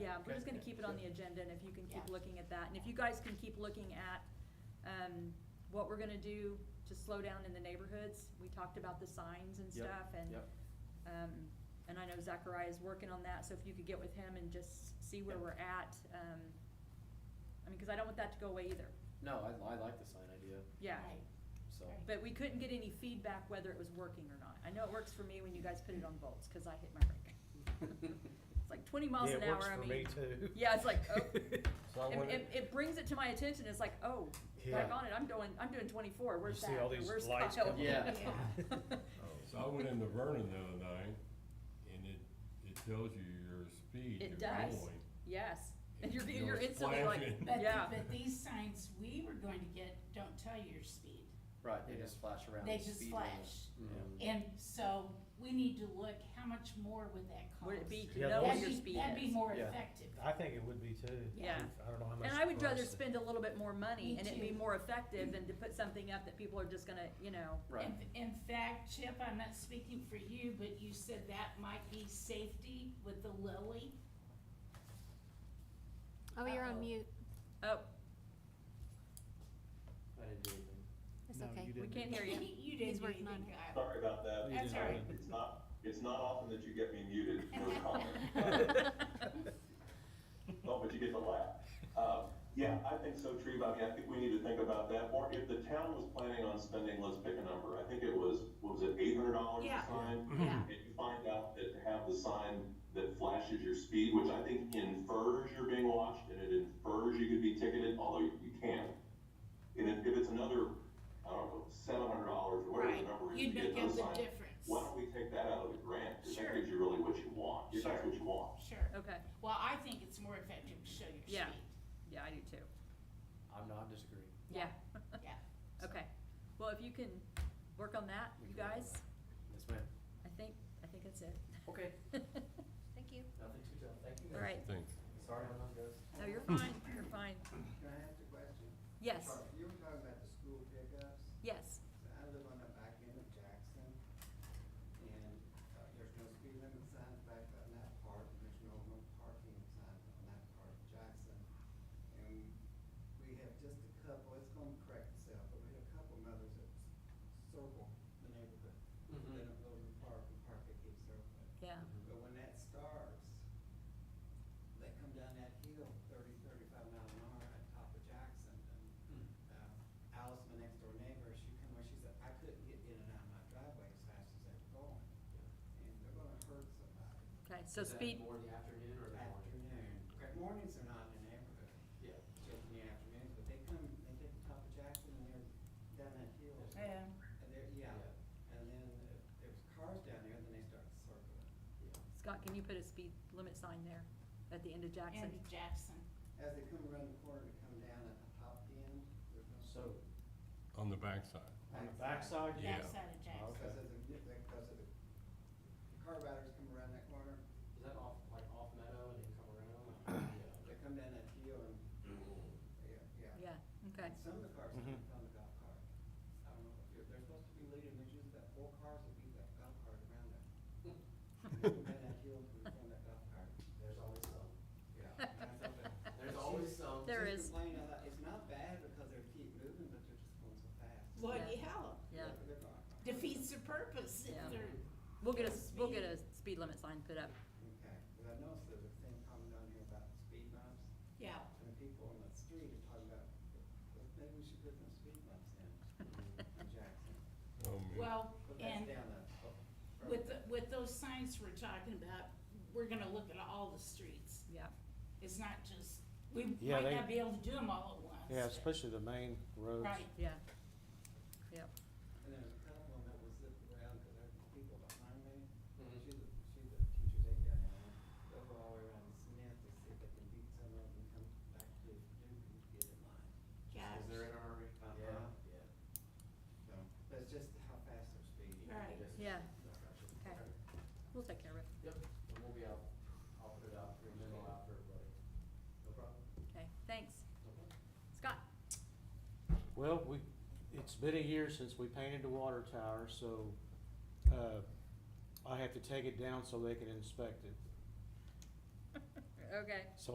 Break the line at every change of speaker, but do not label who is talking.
yeah, we're just
Okay.
gonna keep it on the agenda, and if you can keep
Yeah.
looking at that, and if you guys can keep looking at, um, what we're gonna do to slow down in the neighborhoods, we talked about the signs and
Yep,
stuff, and,
yep.
um, and I know Zachariah is working on that, so if you could get with him and just see where
Yep.
we're at, um, I mean, cause I don't want that to go away either,
No, I, I like the sign idea,
yeah,
Right.
so.
Right.
but we couldn't get any feedback whether it was working or not, I know it works for me when you guys put it on volts, cause I hit my brake, it's like twenty miles
Yeah,
an
it
hour,
works
I
for
mean.
me too.
Yeah, it's like, oh,
So I
it,
wonder-
it, it brings it to my attention, it's like, oh,
Yeah.
back on it, I'm doing, I'm doing twenty-four, where's
see
that,
all
Or
these
where's
lights
Kyle?
coming up.
Oh, So I went into Vernon the other night, and it, it tells you your speed
It
you're
does.
going.
Yes, and
It
you're,
goes
you're instantly like,
flashing.
But, the-
yeah,
but these signs we were going to get don't tell you your speed.
Right, they just flash around.
They
the
just
speed limit.
flash.
Mhm.
And so we need to look, how much more would that cost?
would it be to
Yeah,
know what
That'd
those-
your
be-
speed
That'd be
is?
more
Yeah. Uh,
effective.
I think it would be too.
Yeah.
I don't know how much.
And I would
for us
rather
to-
spend a little bit more money
Me
and it'd be
too.
more effective than to put something up that people are just gonna, you know,
Right,
In, in fact, Chip, I'm not speaking for you, but you said that might be safety with the lily.
Oh, you're
Uh-oh.
on mute.
oh,
I didn't do anything.
It's
No,
okay.
you
we
didn't.
can't hear you.
You didn't
He's
do
working on
anything,
it.
Kyle.
Sorry about that.
That's
It's
all right.
not- It's not, it's not often that you get me muted, no comment.
Well,
Oh, but you get to laugh. Um, yeah, I think so, Treve. I mean, I think we need to think about that more. If the town was planning on spending, let's pick a number. I think it was, what was it, eight hundred dollars
Yeah.
a sign?
Yeah.
And you find out that to have the sign that flashes your speed, which I think infers you're being watched and it infers you could be ticketed, although you you can't. And if, if it's another, I don't know, seven hundred dollars or whatever
Right,
the number is to
you'd make
get those
up
signs.
the difference.
Why don't we take that out of the grant? 'Cause
Sure.
That gives you really what you want. If That's
Sure.
what you want.
Sure.
okay,
Well, I think it's more effective to show your speed.
Yeah. yeah, I do too,
I'm not disagreeing.
yeah,
Yeah.
okay, well, if you can work on that, you
We can work on
guys,
Yes, ma'am.
I think, I think that's
Okay.
it.
Thank you.
Nothing to tell, thank you guys.
All right,
Thanks.
Sorry, I'm not good.
no, you're fine, you're fine,
Can I ask a question?
yes,
Sorry, You were talking about the school pickups.
yes,
So I live on the back end of Jackson, and uh, there's no speed limit signs back on that part, and there's no no parking signs on that part of Jackson. And we have just a couple, it's gonna correct itself, but we have a couple mothers that s- circle the neighborhood.
Mhm.
They don't go to the park, and park they keep circling.
yeah,
But when that starts, they come down that hill thirty, thirty-five mile an hour at top of Jackson, and, um, Alice, my next door neighbor, she come where she said, I couldn't get in and out of my driveway as fast as they were going, and they're gonna hurt somebody.
okay, so
Is that
speed,
More in the afternoon or the morning?
Afternoon, correct, mornings are not in the neighborhood,
Yeah.
just in the afternoons, but they come, they get to top of Jackson, and they're down that hill, and
Yeah.
they're, yeah, and then if there's cars down there, then they start circling.
Scott, can you put a speed limit sign there at the end of Jackson?
And Jackson.
As they come around the corner to come down at the top end, there's no.
So,
On the backside.
On the backside,
Yeah.
Backside of Jackson.
Because of the, because of the, the car riders come around that corner,
is that off, like off Meadow and then come around?
they come down that hill and, yeah, yeah.
Yeah, okay,
And Some of the cars
Mhm.
come down the golf cart. I don't know, if they're, they're supposed to be leading, there's just that four cars that beat that golf cart around that. And they come down that hill and from that golf cart,
There's always some,
yeah. and I thought that-
there's always some.
There
She's
is.
complaining, I thought, it's not bad because they keep moving, but they're just going so fast.
Well,
Yeah.
yeah.
yeah,
but they're not.
defeats the purpose
Yeah.
if they're,
we'll get a, we'll get a speed limit sign put up,
Okay, but I noticed there's a thing coming down here about speed bumps.
yeah.
And the people on the street are talking about, well, maybe we should put some speed bumps in, in Jackson.
Um,
Well,
But that's
and
down the. oh, from-
with, the- with those signs we're talking about, we're gonna look at all the streets.
yeah.
It's not just, we
Yeah,
might
they-
not be able to do them all at once.
Yeah,
but-
especially the main roads.
Right,
Yeah, yep,
And there's a couple of them that was zipped around, cause there were people behind me,
Mhm.
she's a, she's a teacher's aide down there. They go all the way around Smith to see if they can beat some of them, come back to Duke and get in line.
yeah,
Is there in a hurry?
Uh-huh.
Yeah.
So, but it's just how fast they're speeding.
Right.
yeah,
Okay.
Okay. we'll take care of it,
Yep, and we'll be out, I'll put it out, for a memo out for everybody. No problem.
okay, thanks. Scott,
Well, we, it's been a year since we painted the water tower, so, uh, I have to take it down so they can inspect it.
okay.